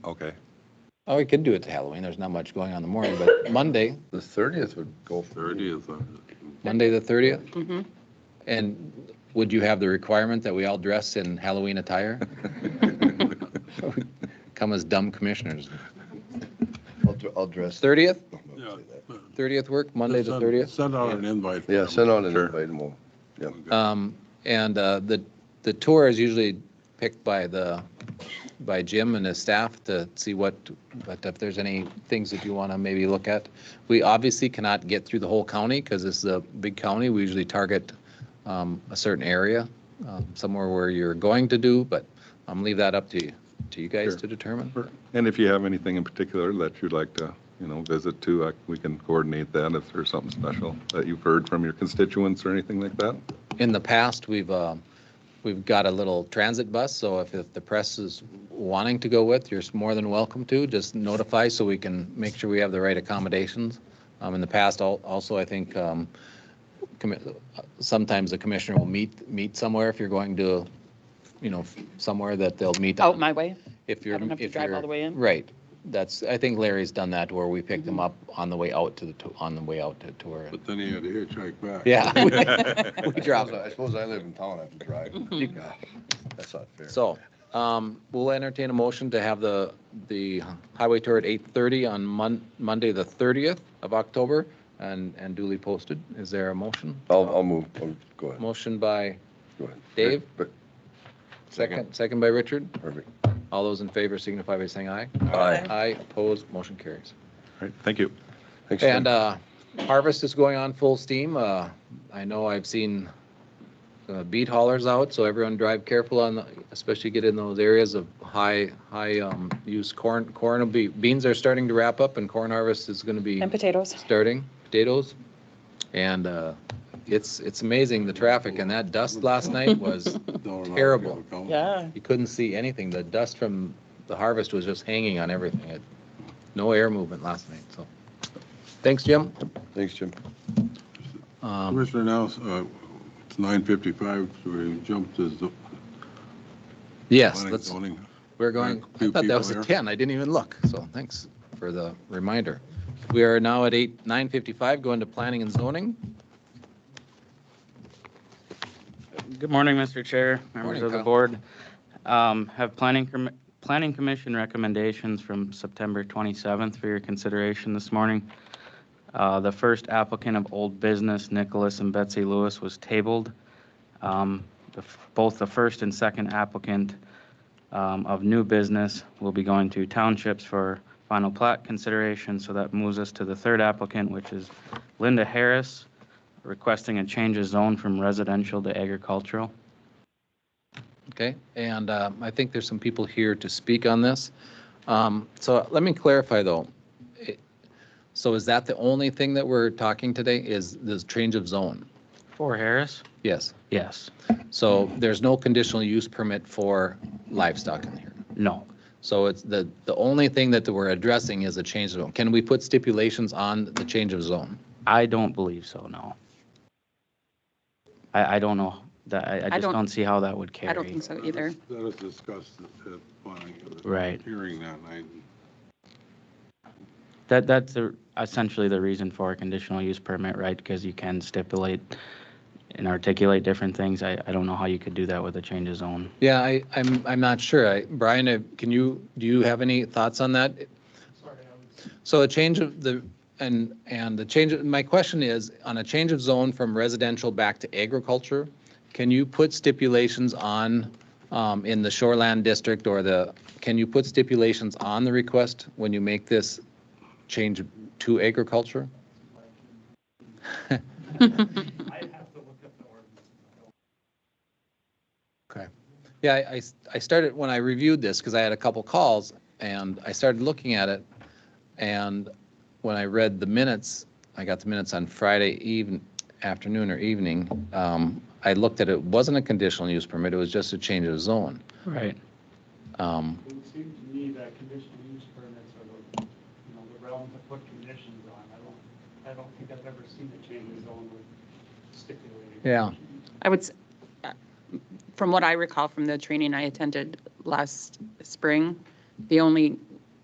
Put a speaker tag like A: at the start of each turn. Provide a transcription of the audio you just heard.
A: Okay,
B: Oh, we could do it to Halloween. There's not much going on in the morning, but Monday,
C: The thirtieth would go for you.
A: thirtieth,
B: Monday the thirtieth.
D: Mhm.
B: And would you have the requirement that we all dress in Halloween attire? Come as dumb commissioners.
C: I'll, dr- I'll dress.
B: Thirtieth,
A: Yeah.
B: thirtieth work, Monday the
A: Send-
B: thirtieth.
A: Send out an invite.
C: Yeah, send out an
A: Sure.
C: invite and we'll,
A: Okay.
B: Um, and, uh, the, the tour is usually picked by the, by Jim and his staff to see what, but if there's any things that you want to maybe look at. We obviously cannot get through the whole county because this is a big county. We usually target, um, a certain area, um, somewhere where you're going to do, but, um, leave that up to you, to you guys
A: Sure.
B: to determine.
A: And if you have anything in particular that you'd like to, you know, visit to, I- we can coordinate that if there's something special that you've heard from your constituents or anything like that.
B: In the past, we've, um, we've got a little transit bus, so if, if the press is wanting to go with, you're more than welcome to. Just notify so we can make sure we have the right accommodations. Um, In the past, al- also, I think um, commi- sometimes the commissioner will meet, meet somewhere if you're going to, you know, somewhere that they'll meet.
D: Out
B: on-
D: Oh, my way.
B: If you're.
D: I don't have to
B: if
D: drive all
B: you're-
D: the way in. Mm-hmm.
B: Right. That's, I think Larry's done that where we pick them up on the way out to the, tou- on the way out to tour.
E: But then he had to hitchhike back.
B: Yeah.
A: Yeah.
B: We drop
C: I suppose I live in town, I have to drive.
D: Mm-hmm.
C: God, That's not fair.
B: So, um, we'll entertain a motion to have the, the highway tour at eight thirty on Mon- Monday, the thirtieth of October and, and duly posted. Is there a motion?
C: I'll, I'll move, I'll- go ahead,
B: Motion by
C: go ahead.
B: Dave?
C: But,
B: second, second by Richard.
C: perfect.
B: All those in favor signify by saying aye.
C: Aye.
B: Aye, opposed, motion carries.
A: All right, thank you.
C: Thanks, Tim.
B: And, uh, harvest is going on full steam. Uh, I know I've seen uh, beet haulers out, so everyone drive careful on, the- especially get in those areas of high, high, um, use corn, corn will be, beans are starting to wrap up and corn harvest is gonna be
D: And potatoes.
B: starting, potatoes. And, uh, it's, it's amazing, the traffic and that dust last night was,
E: Don't allow
B: Terrible.
E: people to come.
D: Yeah.
B: you couldn't see anything. The dust from the harvest was just hanging on everything. It- No air movement last night, so. Thanks, Jim.
C: Thanks, Jim.
B: Um,
E: Commissioner now, uh, it's nine fifty-five, so we jumped to zo-
B: Yes,
E: planning,
B: let's,
E: zoning.
B: we're going, I
E: Two
B: thought that
E: people
B: was a
E: here.
B: 10, I didn't even look, so thanks for the reminder. We are now at 8, 9:55, going to planning and zoning.
F: Good morning, Mr. Chair, members
B: Morning,
F: of the
B: Kyle.
F: board. Um, Have planning, commi- planning commission recommendations from September 27th for your consideration this morning. Uh, The first applicant of old business, Nicholas and Betsy Lewis, was tabled. Um, the f- Both the first and second applicant um, of new business will be going to townships for final plat consideration. So that moves us to the third applicant, which is Linda Harris, requesting a change of zone from residential to agricultural.
B: Okay, and um, I think there's some people here to speak on this. Um, So let me clarify, though. It- So is that the only thing that we're talking today, is this change of zone?
F: For Harris?
B: Yes,
F: Yes.
B: so there's no conditional use permit for livestock in here?
F: No.
B: So it's the, the only thing that we're addressing is a change of zone. Can we put stipulations on the change of zone?
F: I don't believe so, no. I, I don't know. That, I, I just
D: don't-
F: don't see how that would carry.
D: I don't think so either.
E: That was discussed at, at planning. at the
F: Right.
E: Hearing that night.
F: That, that's the- essentially the reason for a conditional use permit, right? Because you can stipulate and articulate different things. I, I don't know how you could do that with a change of zone.
B: Yeah, I, I'm, I'm not sure. I- Brian, uh, can you, do you have any thoughts on that? So a change of the, and, and the change, of- my question is, on a change of zone from residential back to agriculture, can you put stipulations on, um, in the shoreland district or the, can you put stipulations on the request when you make this change to agriculture? Okay. Yeah, I- I, s- I started, when I reviewed this, because I had a couple calls, and I started looking at it, and when I read the minutes, I got the minutes on Friday even, afternoon or evening, um, I looked at it, it wasn't a conditional use permit, it was just a change of zone.
F: Right.
B: Um,
G: It would seem to me that conditional use permits are the, you know, the realm to put conditions on. I don't, I don't think I've ever seen a change in zone with stipulated.
B: Yeah.
G: conditions.
D: I would, s- uh, from what I recall from the training I attended last spring, the only